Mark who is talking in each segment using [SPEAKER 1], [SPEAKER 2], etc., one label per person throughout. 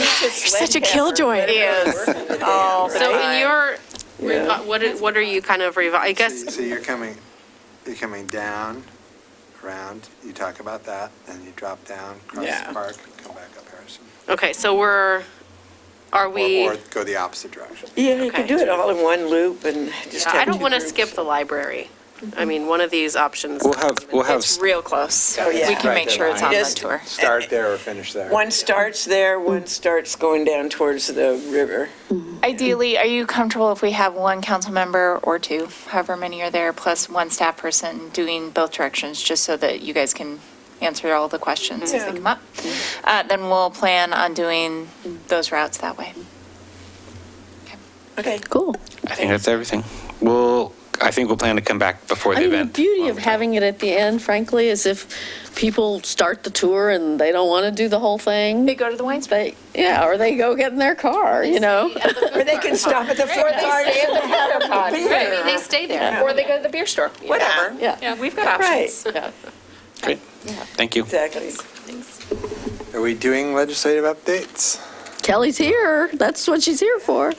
[SPEAKER 1] Such a killjoy.
[SPEAKER 2] Oh,
[SPEAKER 3] So in your, revi- what, are- what are you kind of revi, I
[SPEAKER 4] So-
[SPEAKER 3] guess,
[SPEAKER 4] So you're coming, you're coming down, around, you talk about that, then you drop down, cross
[SPEAKER 2] Yeah.
[SPEAKER 4] the park, come back up Harrison.
[SPEAKER 3] okay, so we're, are
[SPEAKER 4] Or-
[SPEAKER 3] we,
[SPEAKER 4] Or go the opposite direction.
[SPEAKER 2] Yeah, you can
[SPEAKER 3] Okay.
[SPEAKER 2] do it all in one loop and just have.
[SPEAKER 3] I don't
[SPEAKER 2] two
[SPEAKER 3] want to
[SPEAKER 2] groups.
[SPEAKER 3] skip the library. I mean, one of these options.
[SPEAKER 5] We'll have- we'll have-
[SPEAKER 3] It's real close.
[SPEAKER 4] Oh, yeah.
[SPEAKER 1] We can make sure it's on the
[SPEAKER 2] Just-
[SPEAKER 1] tour.
[SPEAKER 4] Start there or finish there.
[SPEAKER 2] One starts there, one starts going down towards the river.
[SPEAKER 1] Ideally, are you comfortable if we have one council member or two, however many are there, plus one staff person doing both directions, just so that you guys can answer all the questions as they come up? Uh, Then we'll plan on doing those routes that way.
[SPEAKER 2] Okay.
[SPEAKER 6] Cool.
[SPEAKER 5] I think that's everything. We'll, I think we'll plan to come back before
[SPEAKER 6] I
[SPEAKER 5] the
[SPEAKER 6] mean, the
[SPEAKER 5] event.
[SPEAKER 6] beauty of having it at the end, frankly, is if people start the tour and they don't want to do the whole thing.
[SPEAKER 1] They go to the wine store.
[SPEAKER 6] They, yeah, or they go get in their car, you know?
[SPEAKER 2] Or they can stop at the fourth
[SPEAKER 7] Right, they stay there, or they go to the beer store.
[SPEAKER 2] Whatever.
[SPEAKER 6] Yeah,
[SPEAKER 7] Yeah, we've got
[SPEAKER 2] Right.
[SPEAKER 7] options.
[SPEAKER 5] Great. Thank you.
[SPEAKER 2] Exactly.
[SPEAKER 4] Are we doing legislative updates?
[SPEAKER 6] Kelly's here. That's what she's here for.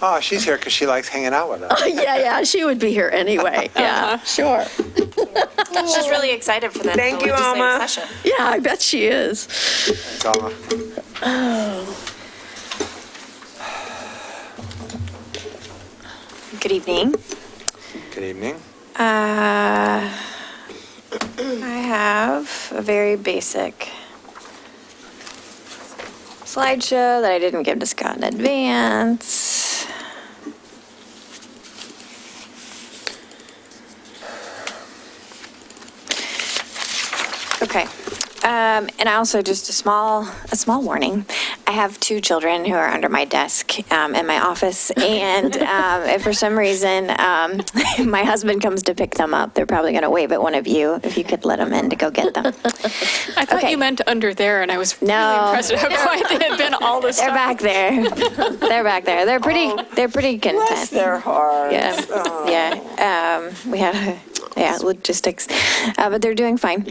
[SPEAKER 4] Oh, she's here because she likes hanging out with us.
[SPEAKER 6] Yeah, yeah, she would be here anyway. Yeah, Uh-huh. sure.
[SPEAKER 1] She's really excited for the the
[SPEAKER 2] Thank you, Alma.
[SPEAKER 1] legislative session.
[SPEAKER 6] Yeah, I bet she is.
[SPEAKER 4] It's all-
[SPEAKER 8] Good evening.
[SPEAKER 4] Good evening.
[SPEAKER 8] Uh, I have a very basic slideshow that I didn't give to Scott in advance. Okay. Um, and I also just a small, a small warning. I have two children who are under my desk um, in my office, and um, if for some reason um, my husband comes to pick them up, they're probably going to wave at one of you if you could let them in to go get them.
[SPEAKER 7] I thought
[SPEAKER 8] Okay.
[SPEAKER 7] you meant under there, and I was really
[SPEAKER 8] No.
[SPEAKER 7] impressed at how quiet they had been all this
[SPEAKER 8] They're
[SPEAKER 7] time.
[SPEAKER 8] back there. They're back there. They're pretty. They're pretty content.
[SPEAKER 2] Oh. Bless their hearts. Oh.
[SPEAKER 8] Yeah, yeah. Um, we had, a- yeah, logistics, uh, but they're doing fine.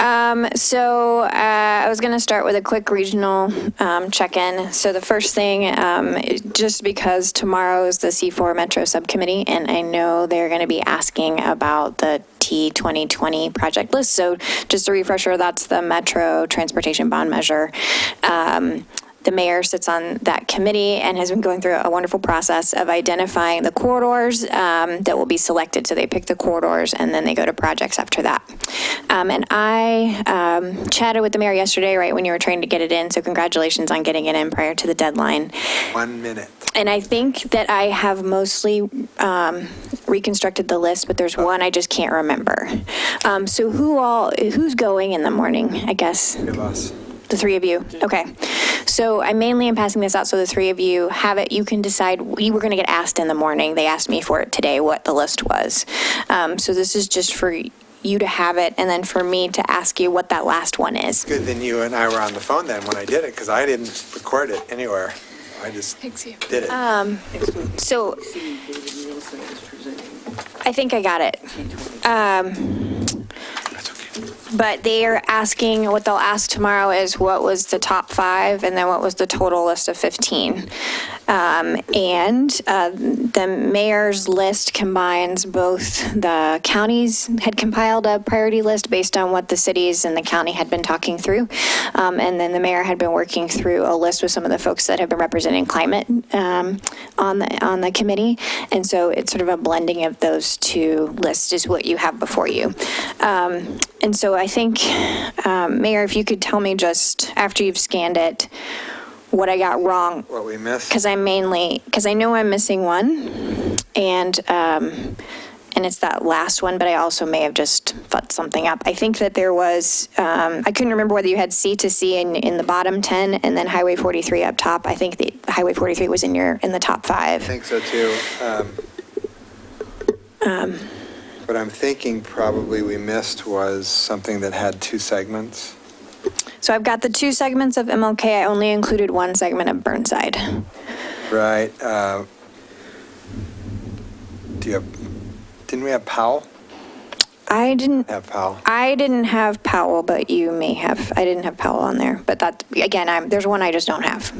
[SPEAKER 8] Um, so uh, I was going to start with a quick regional um, check-in. So the first thing, um, it- just because tomorrow is the C4 Metro Subcommittee, and I know they're going to be asking about the T 2020 project list. So just a refresher, that's the Metro Transportation Bond Measure. Um, the mayor sits on that committee and has been going through a wonderful process of identifying the corridors um, that will be selected. So they pick the corridors and then they go to projects after that. Um, and I um, chatted with the mayor yesterday, right when you were trying to get it in. So congratulations on getting it in prior to the deadline.
[SPEAKER 4] One minute.
[SPEAKER 8] And I think that I have mostly um, reconstructed the list, but there's one I just can't remember. Um, so who all who's going in the morning? I guess
[SPEAKER 4] Give us.
[SPEAKER 8] the three of you? Okay. So I mainly am passing this out so the three of you have it. You can decide, we were going to get asked in the morning. They asked me for it today, what the list was. Um, So this is just for you to have it and then for me to ask you what that last one is.
[SPEAKER 4] Good thing you and I were on the phone then when I did it because I didn't record it anywhere. I just did it.
[SPEAKER 8] So I think I got it.
[SPEAKER 4] That's okay.
[SPEAKER 8] But they are asking, what they'll ask tomorrow is what was the top five and then what was the total list of 15? Um, And uh, the mayor's list combines both the counties had compiled a priority list based on what the cities and the county had been talking through. Um, And then the mayor had been working through a list with some of the folks that have been representing climate um, on the, on the committee. And so it's sort of a blending of those two lists is what you have before you. Um, And so I think, um, Mayor, if you could tell me just after you've scanned it, what I got wrong
[SPEAKER 4] What we missed?
[SPEAKER 8] because I'm mainly, because I know I'm missing one, and, um, and it's that last one, but I also may have just fucked something up. I think that there was, um, I couldn't remember whether you had C to C in, in the bottom 10 and then Highway 43 up top. I think the Highway 43 was in your, in the
[SPEAKER 4] I
[SPEAKER 8] top five.
[SPEAKER 4] think so too. Um, What I'm thinking probably we missed was something that had two segments.
[SPEAKER 8] So I've got the two segments of MLK. I only included one segment of Burnside.
[SPEAKER 4] Right. uh, Do you have, didn't we have Powell?
[SPEAKER 8] I didn't,
[SPEAKER 4] Have Powell.
[SPEAKER 8] I didn't have Powell, but you may have. I didn't have Powell on there, but that, again, I'm, there's one I just don't have.